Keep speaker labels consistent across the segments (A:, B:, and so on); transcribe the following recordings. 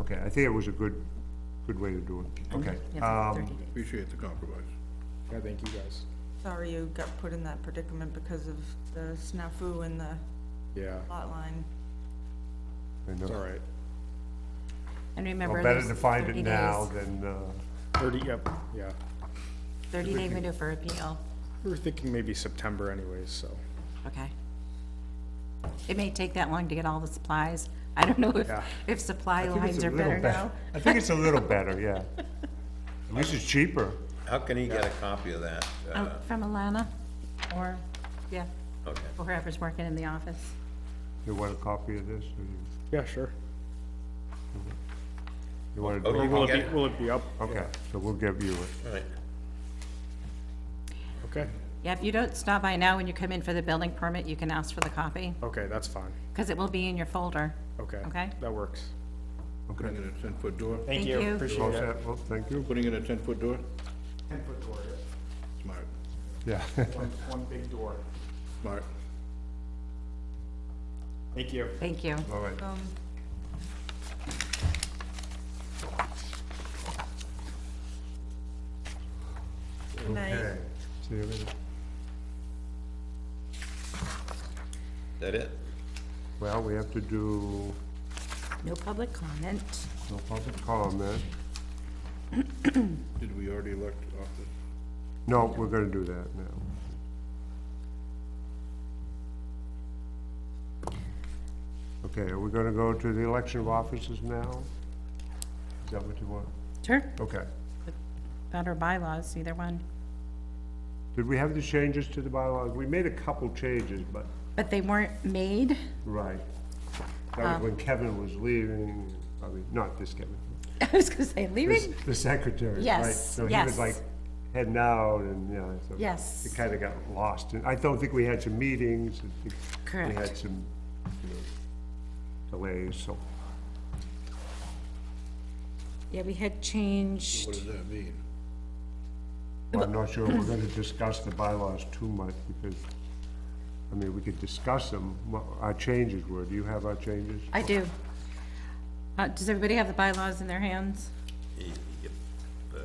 A: Okay, I think it was a good, good way to do it, okay.
B: Yeah,
A: um,
B: 30 days.
C: Appreciate the compromise.
D: Yeah, thank you guys.
E: Sorry you got put in that predicament because of the snafu in the
D: Yeah,
E: lot line.
A: I know.
D: it's all right.
A: Well,
B: And remember.
A: Better
B: there's
A: to find
B: 30
A: it
B: days-
A: now than, uh,
D: Thirty, yep, yeah.
B: Thirty day window for appeal,
D: We were thinking maybe September anyways, so.
B: okay. It may take that long to get all the supplies. I don't know if,
D: Yeah.
B: if supply
A: I think it's
B: lines
A: a
B: are
A: little
B: better
A: bet-
B: now.
A: I think it's a little better, yeah. At least it's cheaper.
F: How can he get a copy of that?
B: Um,
F: Uh,
B: From Alana, or, yeah,
F: Okay.
B: or whoever's working in the office.
A: You want a copy of this, or you,
D: Yeah, sure.
A: you want to
F: Oh,
A: do
F: you
A: it?
F: can
D: Will
F: get
D: it be,
F: it?
D: will it be up?
A: Okay, so we'll give you it.
F: All right.
D: Okay,
B: Yeah, if you don't stop by now when you come in for the building permit, you can ask for the copy,
D: okay, that's fine.
B: because it will be in your folder.
D: Okay.
B: Okay.
D: That works.
A: Okay,
C: Putting in a ten-foot door,
B: Thank you.
A: all
D: Appreciate it.
A: set, well, thank you.
C: putting in a ten-foot door,
D: Ten-foot door, yeah.
C: smart,
A: Yeah,
D: One, one big door.
C: smart.
D: Thank you.
B: Thank you.
A: all right.
E: Um, Good night.
A: Okay. See you later.
F: That it?
A: Well, we have to do
B: No public comment.
A: no public comment.
C: Did we already elect office?
A: No, we're gonna do that now. Okay, are we gonna go to the election of officers now? Is that what you want?
B: Sure.
A: Okay.
B: That or bylaws, either one.
A: Did we have the changes to the bylaws? We made a couple changes, but,
B: But they weren't made.
A: right. That was when Kevin was leaving, I mean, not this Kevin,
B: I was gonna say
A: this-
B: leaving.
A: the secretary, right?
B: Yes,
A: So he was
B: yes.
A: like heading out and, yeah, so.
B: Yes.
A: It kinda got lost. And I don't think we had some meetings. I think We had
B: Correct.
A: some, you know, delays, so.
B: Yeah, we had changed.
C: What does that mean?
A: Well, I'm not sure we're gonna discuss the bylaws too much, because, I mean, we could discuss them, what our changes were. Do you have our changes?
B: I do. Uh, does everybody have the bylaws in their hands?
F: Y- yep,
B: Did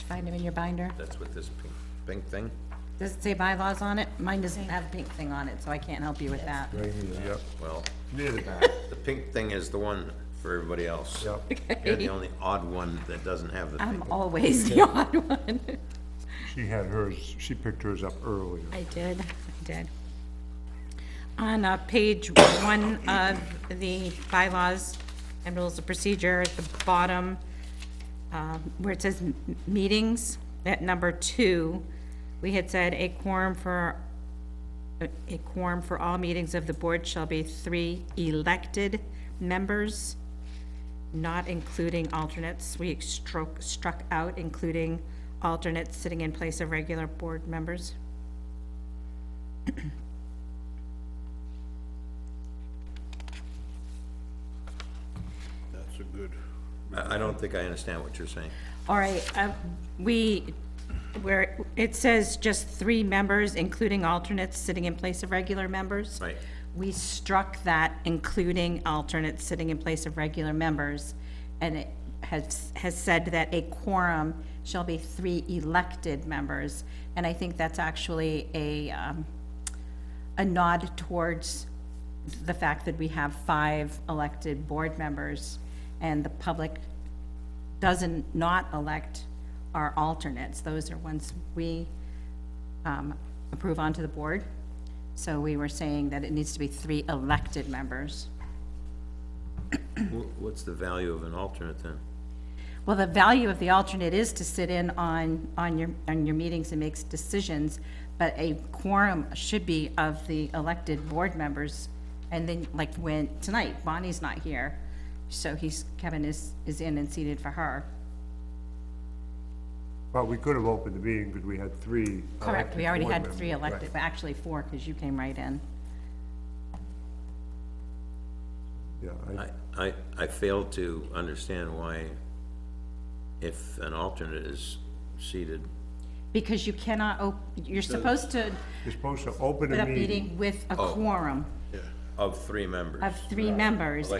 B: you find them in your binder?
F: That's what this pink, pink thing?
B: Does it say bylaws on it? Mine doesn't have pink thing on it, so I can't help you with that.
A: Right here, yep.
F: Well,
A: Near the back,
F: the pink thing is the one for everybody else.
A: yep.
F: You're the only odd one that doesn't have the
B: I'm
F: pink.
B: always the odd one.
A: She had hers, she picked hers up earlier.
B: I did, I did. On uh, page one of the bylaws and rules of procedure, at the bottom, um, where it says m- meetings, at number two, we had said a quorum for, a quorum for all meetings of the board shall be three elected members, not including alternates. We struck, struck out including alternates sitting in place of regular board members.
C: That's a good,
F: I, I don't think I understand what you're saying.
B: All right, uh, we, where, it says just three members, including alternates, sitting in place of regular members.
F: Right.
B: We struck that, including alternates sitting in place of regular members, and it has, has said that a quorum shall be three elected members, and I think that's actually a, um, a nod towards the fact that we have five elected board members, and the public doesn't not elect our alternates. Those are ones we um, approve onto the board. So we were saying that it needs to be three elected members.
F: Wh- What's the value of an alternate then?
B: Well, the value of the alternate is to sit in on, on your, on your meetings and makes decisions, but a quorum should be of the elected board members. And then, like, when, tonight, Bonnie's not here, so he's, Kevin is, is in and seated for her.
A: But we could have opened the meeting because we had three.
B: Correct, we
A: elected
B: already
A: board
B: had
A: members,
B: three
A: right.
B: elected, but actually four, because you came right in.
A: Yeah, I,
F: I, I, I fail to understand why if an alternate is seated,
B: Because you cannot, op- you're supposed to
A: you're supposed to open
B: put
A: a
B: up
A: meeting.
B: meeting with a
F: Oh.
B: quorum
F: of three members.
B: of three members,